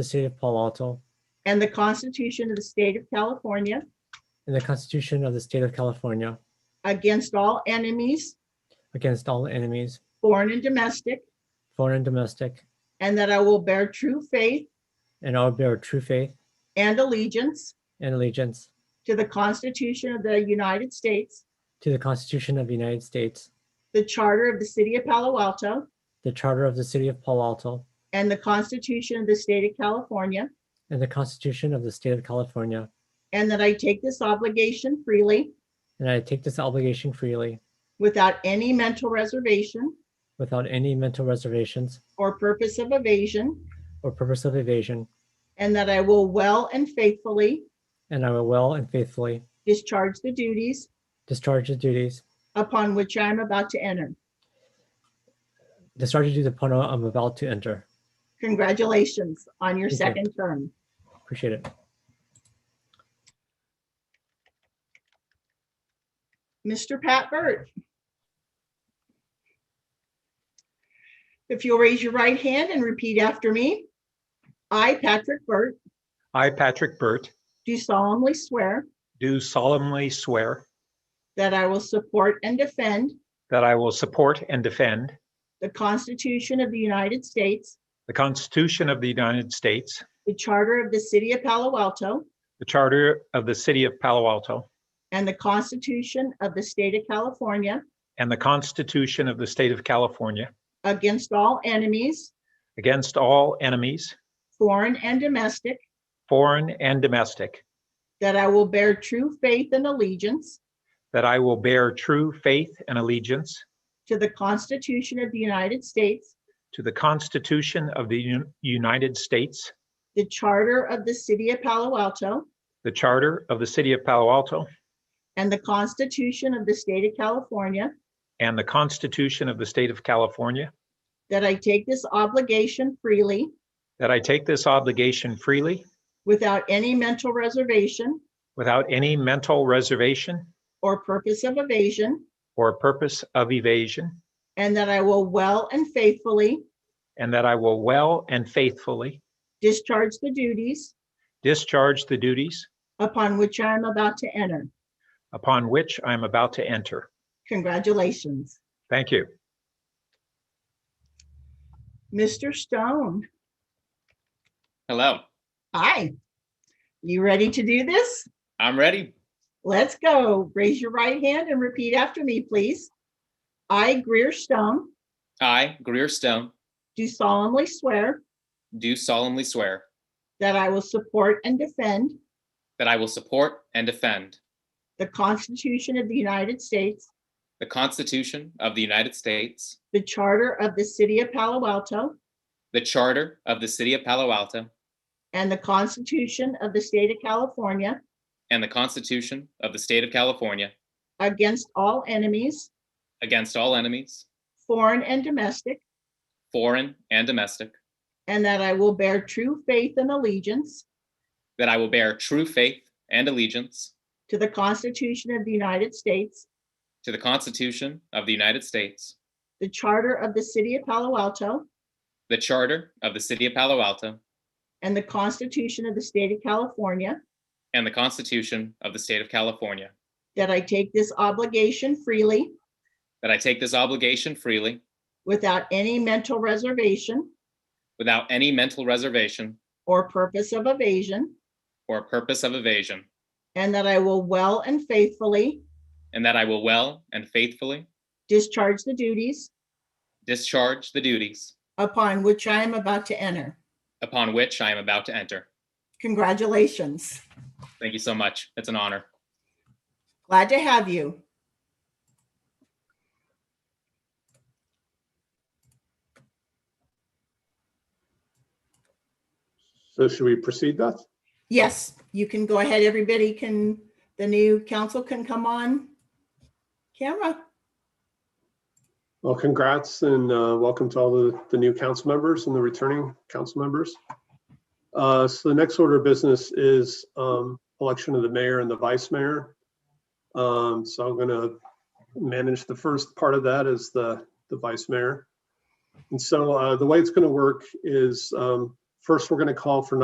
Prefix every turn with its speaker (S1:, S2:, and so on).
S1: the State of Palo Alto,
S2: and the Constitution of the State of California
S1: and the Constitution of the State of California
S2: against all enemies,
S1: against all enemies,
S2: foreign and domestic,
S1: foreign and domestic,
S2: and that I will bear true faith
S1: and I will bear true faith
S2: and allegiance
S1: and allegiance
S2: to the Constitution of the United States,
S1: to the Constitution of the United States,
S2: the Charter of the City of Palo Alto,
S1: the Charter of the City of Palo Alto,
S2: and the Constitution of the State of California,
S1: and the Constitution of the State of California,
S2: and that I take this obligation freely
S1: and I take this obligation freely
S2: without any mental reservation
S1: without any mental reservations
S2: or purpose of evasion,
S1: or purpose of evasion,
S2: and that I will well and faithfully
S1: and I will well and faithfully
S2: discharge the duties
S1: discharge the duties,
S2: upon which I am about to enter.
S1: discharge the duties upon which I'm about to enter.
S2: Congratulations on your
S1: Thank you.
S2: second term.
S1: Appreciate it.
S2: Mr. Pat Burt. If you'll raise your right hand and repeat after me. I, Patrick Burt,
S3: I, Patrick Burt,
S2: do solemnly swear
S3: do solemnly swear
S2: that I will support and defend
S3: that I will support and defend
S2: the Constitution of the United States,
S3: the Constitution of the United States,
S2: the Charter of the City of Palo Alto,
S3: the Charter of the City of Palo Alto,
S2: and the Constitution of the State of California
S3: and the Constitution of the State of California
S2: against all enemies,
S3: against all enemies,
S2: foreign and domestic,
S3: foreign and domestic,
S2: that I will bear true faith and allegiance
S3: that I will bear true faith and allegiance
S2: to the Constitution of the United States,
S3: to the Constitution of the Un- United States,
S2: the Charter of the City of Palo Alto,
S3: the Charter of the City of Palo Alto,
S2: and the Constitution of the State of California,
S3: and the Constitution of the State of California,
S2: that I take this obligation freely
S3: that I take this obligation freely
S2: without any mental reservation
S3: without any mental reservation
S2: or purpose of evasion,
S3: or purpose of evasion,
S2: and that I will well and faithfully
S3: and that I will well and faithfully
S2: discharge the duties
S3: discharge the duties
S2: upon which I am about to enter.
S3: upon which I am about to enter.
S2: Congratulations.
S3: Thank you.
S2: Mr. Stone,
S4: Hello,
S2: hi. You ready to do this?
S4: I'm ready.
S2: Let's go. Raise your right hand and repeat after me, please. I, Greer Stone,
S4: I, Greer Stone,
S2: do solemnly swear
S4: do solemnly swear
S2: that I will support and defend
S4: that I will support and defend
S2: the Constitution of the United States,
S4: the Constitution of the United States,
S2: the Charter of the City of Palo Alto,
S4: the Charter of the City of Palo Alto,
S2: and the Constitution of the State of California
S4: and the Constitution of the State of California
S2: against all enemies,
S4: against all enemies,
S2: foreign and domestic,
S4: foreign and domestic,
S2: and that I will bear true faith and allegiance
S4: that I will bear true faith and allegiance
S2: to the Constitution of the United States,
S4: to the Constitution of the United States,
S2: the Charter of the City of Palo Alto,
S4: the Charter of the City of Palo Alto,
S2: and the Constitution of the State of California,
S4: and the Constitution of the State of California,
S2: that I take this obligation freely
S4: that I take this obligation freely
S2: without any mental reservation
S4: without any mental reservation
S2: or purpose of evasion,
S4: or purpose of evasion,
S2: and that I will well and faithfully
S4: And that I will well and faithfully
S2: discharge the duties
S4: discharge the duties
S2: upon which I am about to enter.
S4: upon which I am about to enter.
S2: Congratulations.
S4: Thank you so much. It's an honor.
S2: Glad to have you.
S5: So should we proceed that?
S2: Yes, you can go ahead. Everybody can, the new council can come on camera.
S5: Well, congrats and uh, welcome to all the, the new council members and the returning council members. Uh, So the next order of business is um, election of the mayor and the vice mayor. Um, So I'm going to manage the first part of that as the, the vice mayor. And so uh, the way it's going to work is um, First, we're going to call for